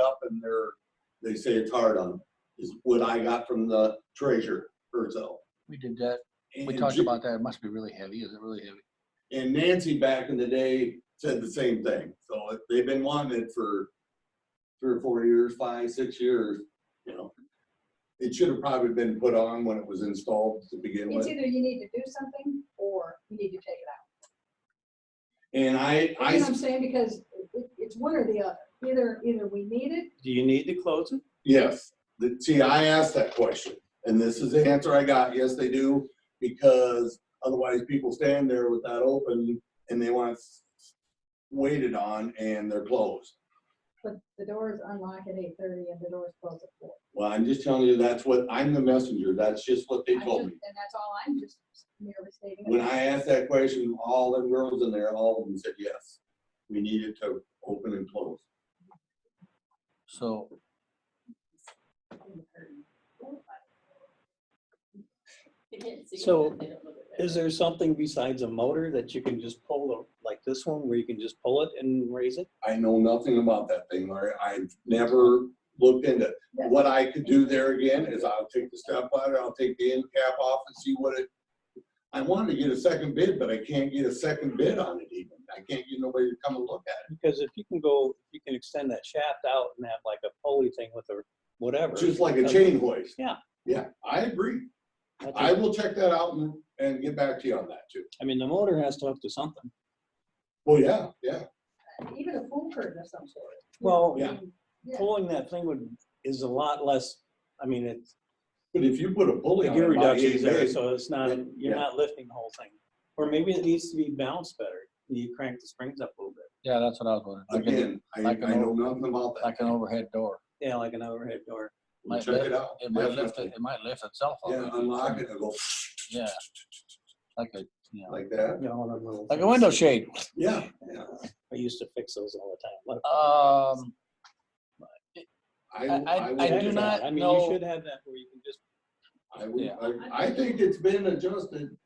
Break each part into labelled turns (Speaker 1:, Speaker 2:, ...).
Speaker 1: up and they're, they say it's hard on them, is what I got from the treasurer herself.
Speaker 2: We did that. We
Speaker 1: And
Speaker 2: talked
Speaker 1: she-
Speaker 2: about that. It must be really heavy. Is it really heavy?
Speaker 1: And Nancy back in the day said the same thing. So it- they've been wanting it for three or four years, five, six years, you know. It should have probably been put on when it was installed to begin
Speaker 3: It's
Speaker 1: with.
Speaker 3: either you need to do something or you need to take it
Speaker 1: And I,
Speaker 3: out.
Speaker 1: I,
Speaker 3: You know what I'm
Speaker 1: s-
Speaker 3: saying? Because it- it's one or the other. Either, either we need it,
Speaker 4: Do you need to close it?
Speaker 1: yes, The- see, I asked that question and this is the answer I got. Yes, they do. Because otherwise people stand there with that open and they want s- waited on and they're closed.
Speaker 3: but the doors unlock at eight thirty and the doors close at four.
Speaker 1: Well, I'm just telling you, that's what, I'm the messenger. That's just what they
Speaker 3: I
Speaker 1: told
Speaker 3: just-
Speaker 1: me.
Speaker 3: And that's all I'm just merely stating.
Speaker 1: When I asked that question, all the girls in there, all of them said yes. We needed to open and close.
Speaker 2: So
Speaker 4: So is there something besides a motor that you can just pull, the- like this one, where you can just pull it and raise it?
Speaker 1: I know nothing about that thing, Larry. I've never looked into it. What I could do there again is I'll take the step ladder, I'll take the end cap off and see what it. I wanted to get a second bid, but I can't get a second bid on it even. I can't get nobody to come and look at
Speaker 4: Because if you can go, you can extend that shaft out and have like a pulley thing with a whatever.
Speaker 1: it, just like a chain hoist.
Speaker 4: Yeah.
Speaker 1: Yeah, I agree.
Speaker 4: I think-
Speaker 1: I will check that out and, and get back to you on that too.
Speaker 4: I mean, the motor has to hook to something.
Speaker 1: Well, yeah, yeah.
Speaker 3: Even a pool curtain of some sort.
Speaker 4: Well,
Speaker 1: Yeah.
Speaker 3: Yeah.
Speaker 4: pulling that thing would, is a lot less, I mean, it's,
Speaker 1: But if you put a bully
Speaker 4: the
Speaker 1: on
Speaker 4: gear
Speaker 1: it, Oh, about
Speaker 4: reduction
Speaker 1: eight
Speaker 4: is there,
Speaker 1: days,
Speaker 4: so it's not,
Speaker 1: Yeah.
Speaker 4: you're not lifting the whole thing. Or maybe it needs to be balanced better. You crank the springs up a little bit.
Speaker 2: yeah, that's what I was wondering. Like an-
Speaker 1: again, I,
Speaker 2: like an
Speaker 1: I know nothing about that.
Speaker 2: Like an overhead door.
Speaker 4: Yeah, like an overhead door.
Speaker 1: We'll
Speaker 2: might
Speaker 1: check it
Speaker 2: lift-
Speaker 1: out.
Speaker 2: It might lift,
Speaker 1: definitely.
Speaker 2: it it might lift itself. up.
Speaker 1: Yeah, unlock it, it'll go
Speaker 2: Yeah. Like a, you know,
Speaker 1: like that.
Speaker 4: You know, one of them little
Speaker 2: like a
Speaker 4: things.
Speaker 2: window shade.
Speaker 1: Yeah, yeah.
Speaker 4: I used to fix those all the time. What a fucking
Speaker 2: Um,
Speaker 1: I,
Speaker 2: I- I-
Speaker 1: I,
Speaker 2: I
Speaker 4: mess.
Speaker 1: would-
Speaker 2: do
Speaker 4: Yeah,
Speaker 2: not
Speaker 4: I mean, you
Speaker 2: know-
Speaker 4: should have that where you can just,
Speaker 1: I would,
Speaker 2: yeah.
Speaker 1: I, I think it's been adjusted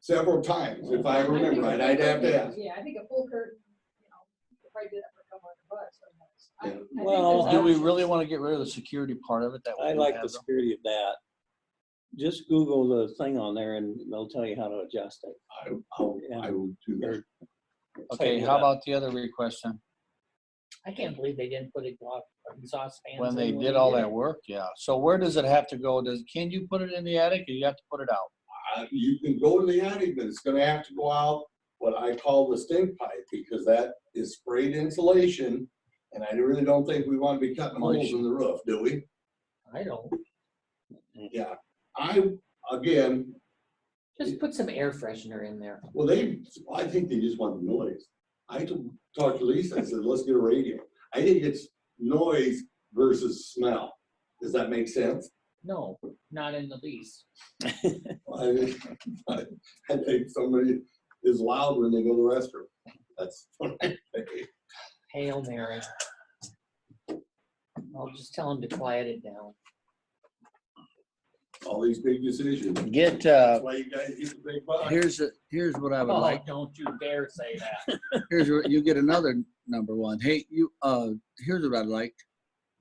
Speaker 1: several times, if I
Speaker 3: I think
Speaker 1: remember
Speaker 3: a
Speaker 1: right,
Speaker 3: full
Speaker 1: I'd have to
Speaker 3: curtain-
Speaker 1: ask.
Speaker 3: Yeah, I think a full curtain, you know, you could probably do that for a couple hundred bucks. or less. I-
Speaker 1: Yeah.
Speaker 3: I think there's
Speaker 2: do
Speaker 4: Well,
Speaker 2: we
Speaker 3: options.
Speaker 2: really want to get rid of the security part of it? That
Speaker 4: I
Speaker 2: we
Speaker 4: like
Speaker 2: have
Speaker 4: the
Speaker 2: them?
Speaker 4: security of that. Just Google the thing on there and they'll tell you how to adjust it.
Speaker 1: I, I'll- I will do that.
Speaker 2: Okay,
Speaker 4: Tighten it
Speaker 2: how
Speaker 4: up.
Speaker 2: about the other request then?
Speaker 5: I can't believe they didn't put it block saucepans.
Speaker 2: When they
Speaker 5: in
Speaker 2: did all
Speaker 5: it.
Speaker 2: that work, yeah. So where does it have to go? Does, can you put it in the attic or you have to put it out?
Speaker 1: I- You can go to the attic, but it's gonna have to go out what I call the stink pipe, because that is sprayed insulation. And I really don't think we wanna be cutting holes in the roof, do we?
Speaker 5: I don't,
Speaker 1: Yeah, I, again,
Speaker 5: just put some air freshener in there.
Speaker 1: well, they, I think they just want the noise. I t- talked to Lisa, I said, let's get a radio. I think it's noise versus smell. Does that make sense?
Speaker 5: No, not in the least.
Speaker 1: I think- I think somebody is loud when they go to the restroom. That's what I think.
Speaker 5: Hail Mary. I'll just tell them to quiet it down.
Speaker 1: All these big decisions.
Speaker 2: Get, uh,
Speaker 1: That's why you guys get the big bucks.
Speaker 2: here's, here's what I
Speaker 5: Oh, don't you dare say that.
Speaker 2: here's where you get another number one. Hey, you, uh, here's what I'd like.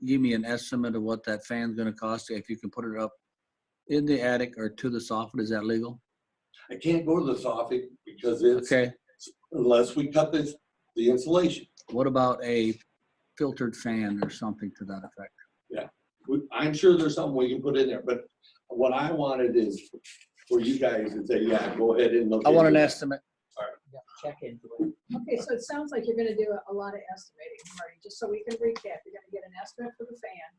Speaker 2: Give me an estimate of what that fan's gonna cost, if you can put it up in the attic or to the soffit, is that legal?
Speaker 1: I can't go to the soffit because it's,
Speaker 2: Okay,
Speaker 1: unless we cut this, the insulation.
Speaker 2: what about a filtered fan or something to that effect?
Speaker 1: We- I'm sure there's something we can put in there, but what I wanted is for you guys to say, yeah, go ahead and look.
Speaker 2: I want an
Speaker 1: into it.
Speaker 2: estimate.
Speaker 5: Yeah, Check into it.
Speaker 3: Okay, so it sounds like you're gonna do a- a lot of estimating, Marty, just so we can recap, you're gonna get an estimate for the fan.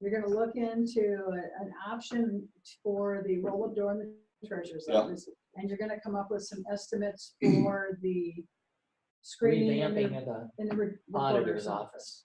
Speaker 3: You're gonna look into a- an option for the roll-up door in the treasurer's
Speaker 1: Yeah.
Speaker 3: office, and you're gonna come up with some estimates for the screening in
Speaker 5: Revamping
Speaker 3: the,
Speaker 5: of the
Speaker 3: in the re- recorder's
Speaker 5: auditor's
Speaker 3: office.
Speaker 5: office.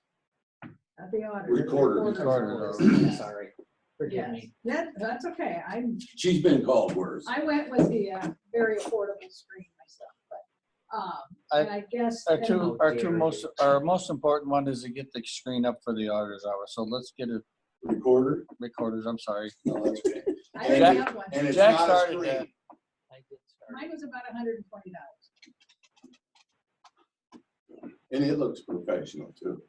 Speaker 3: At the auditor.
Speaker 1: Recorder.
Speaker 3: recorder's
Speaker 2: Recorder.
Speaker 3: office,
Speaker 5: I'm
Speaker 3: yes.
Speaker 5: Sorry, forgive
Speaker 3: Yes,
Speaker 5: me.
Speaker 3: that, that's okay, I'm,
Speaker 1: She's been called worse.
Speaker 3: I went with the uh, very affordable screen myself, but, um, and I guess.
Speaker 2: Our
Speaker 3: then-
Speaker 2: two,
Speaker 5: How
Speaker 2: our two
Speaker 5: dare
Speaker 2: most,
Speaker 5: you.
Speaker 2: our most important one is to get the screen up for the auditor's hour, so let's get a
Speaker 1: Recorder?
Speaker 2: recorders, I'm sorry.
Speaker 1: No, that's okay.
Speaker 3: I didn't
Speaker 2: Jack-
Speaker 3: have one.
Speaker 1: And it's
Speaker 2: Jack
Speaker 1: not a
Speaker 2: started
Speaker 1: screen.
Speaker 2: that.
Speaker 5: I did start.
Speaker 3: Mine was about hundred and twenty dollars.
Speaker 1: And it looks professional too.